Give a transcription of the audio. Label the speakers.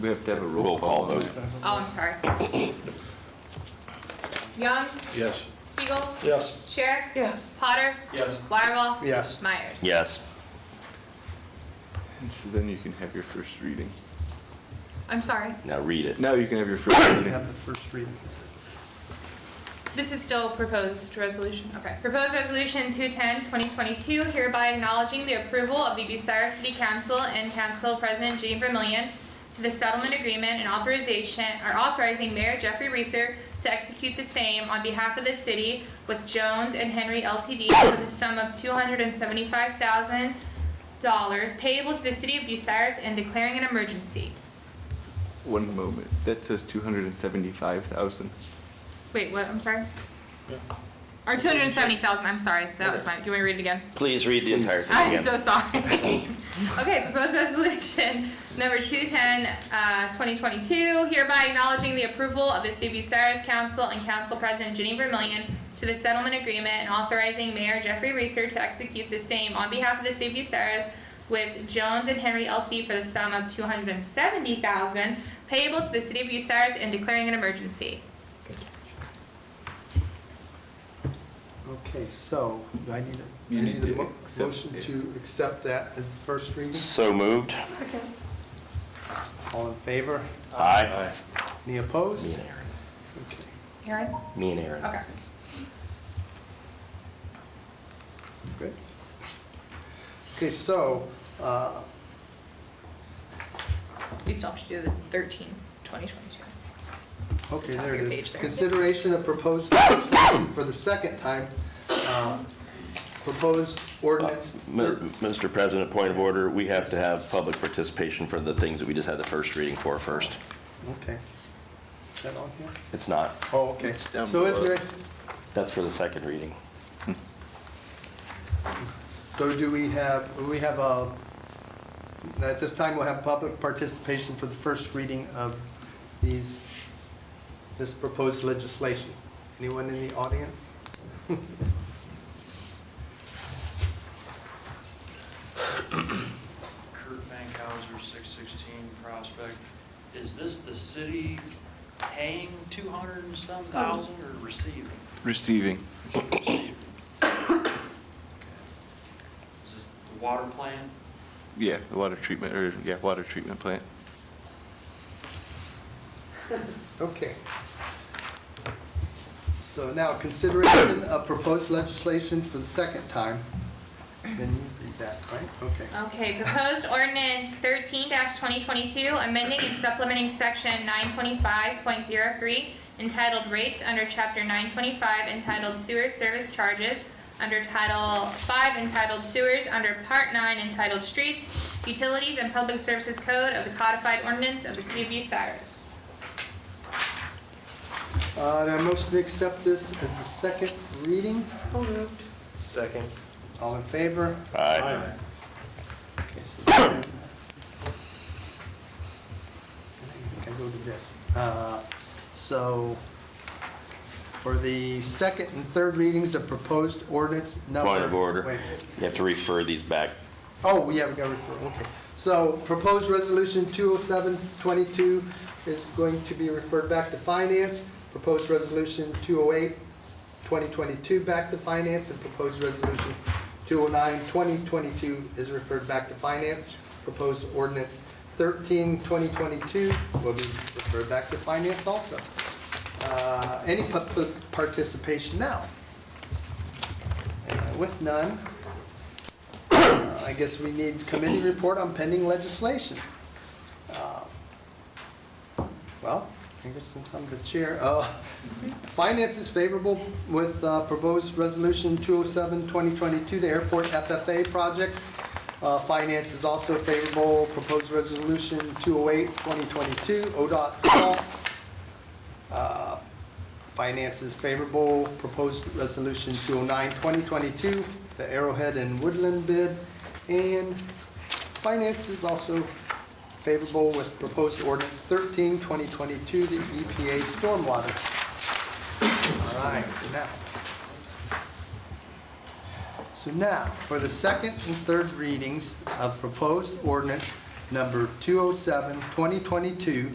Speaker 1: We have to have a
Speaker 2: Roll call vote.
Speaker 3: Oh, I'm sorry. Young,
Speaker 4: Yes.
Speaker 3: Spiegel,
Speaker 4: Yes.
Speaker 3: Sherrick.
Speaker 5: Yes.
Speaker 3: Potter.
Speaker 4: Yes.
Speaker 3: Wireball.
Speaker 4: Yes.
Speaker 3: Myers.
Speaker 2: Yes.
Speaker 1: So Then you can have your first reading.
Speaker 3: I'm sorry.
Speaker 2: Now read it.
Speaker 1: Now you can have your first reading.
Speaker 4: the first reading.
Speaker 3: This is still proposed resolution, okay. Proposed resolution 210, 2022, hereby acknowledging the approval of the Bucyrus City Council and Council President Jean Vermillion to the settlement agreement and authorization, or authorizing Mayor Jeffrey Reeser to execute the same on behalf of the city with Jones and Henry LTD for the sum of $275,000 payable to the city of Bucyrus and declaring an emergency.
Speaker 1: One moment. That says 275,000.
Speaker 3: Wait, what, I'm sorry? Or 270,000, I'm sorry, that was my, do you want me to read it again?
Speaker 2: Please read the entire thing
Speaker 3: I'm
Speaker 2: again.
Speaker 3: so sorry. Okay, proposed resolution number 210, uh, 2022, hereby acknowledging the approval of the City of Bucyrus Council and Council President Jenny Vermillion to the settlement agreement and authorizing Mayor Jeffrey Reeser to execute the same on behalf of the City of Bucyrus with Jones and Henry LT for the sum of 270000 payable to the City of Bucyrus and declaring an emergency.
Speaker 6: Okay, so, do I need a,
Speaker 1: You
Speaker 6: I
Speaker 1: need
Speaker 6: need a
Speaker 1: to
Speaker 6: mo-
Speaker 1: accept
Speaker 6: motion
Speaker 1: it.
Speaker 6: to accept that as the first reading?
Speaker 2: So moved.
Speaker 6: All in favor?
Speaker 2: Aye.
Speaker 6: Any
Speaker 2: Me
Speaker 6: opposed?
Speaker 2: and Aaron.
Speaker 6: Okay.
Speaker 3: Aaron?
Speaker 2: Me and Aaron.
Speaker 3: Okay.
Speaker 6: Good. Okay, so, uh,
Speaker 3: We still have to do the 13, 2022.
Speaker 6: okay,
Speaker 3: Top of
Speaker 6: there
Speaker 3: your
Speaker 6: it
Speaker 3: page
Speaker 6: is.
Speaker 3: there.
Speaker 6: Consideration of proposed legislation for the second time, uh, proposed
Speaker 1: Uh,
Speaker 6: ordinance.
Speaker 2: Mi- Mr. President, point of order, we have to have public participation for the things that we just had the first reading for first.
Speaker 6: Okay. Is that on here?
Speaker 2: It's not.
Speaker 6: Oh, okay.
Speaker 1: down
Speaker 6: So is
Speaker 1: below.
Speaker 6: there,
Speaker 2: That's for the second reading.
Speaker 6: So do we have, we have a, at this time, we'll have public participation for the first reading of these, this proposed legislation. Anyone in the audience?
Speaker 7: Kurt Fankhauser, 616 Prospect. Is this the city paying 200 and some thousand or receiving?
Speaker 1: Receiving.
Speaker 7: Receiving. Okay. Is this the water plant?
Speaker 1: Yeah, the water treatment, or, yeah, water treatment plant.
Speaker 6: Okay. So now, consideration of proposed legislation for the second time. Then you read that, right? Okay.
Speaker 3: Okay, proposed ordinance thirteen twenty twenty-two, amending and supplementing section nine twenty-five point zero three entitled rates under chapter nine twenty-five entitled sewer service charges, under title five entitled sewers, under part nine entitled streets, utilities and public services code of the codified ordinance of the city of Bucyrus.
Speaker 6: Uh, do I motion to accept this as the second reading?
Speaker 5: So moved.
Speaker 4: Second.
Speaker 6: All in favor?
Speaker 2: Aye.
Speaker 6: Okay, so then- I go to this. Uh, So for the second and third readings of proposed ordinance number.
Speaker 2: Point of order.
Speaker 6: Wait.
Speaker 2: You have to refer these back.
Speaker 6: Oh, yeah, we got to refer, okay. So proposed resolution 207-22 is going to be referred back to finance. Proposed resolution 208-2022 back to finance, and proposed resolution 209-2022 is referred back to finance. Proposed ordinance 13-2022 will be referred back to finance also. Uh, Any public participation now? Uh, With none, uh, I guess we need committee report on pending legislation. Uh, Well, I guess since I'm the chair, uh, Finance is favorable with uh, proposed resolution 207-2022, the airport FFA project. Uh, Finance is also favorable, proposed resolution 208-2022, ODOT salt. Uh, Finance is favorable, proposed resolution 209-2022, the Arrowhead and Woodland bid. And finance is also favorable with proposed ordinance 13-2022, the EPA stormwater. All right, now. So now, for the second and third readings of proposed ordinance oh number 207, 2022,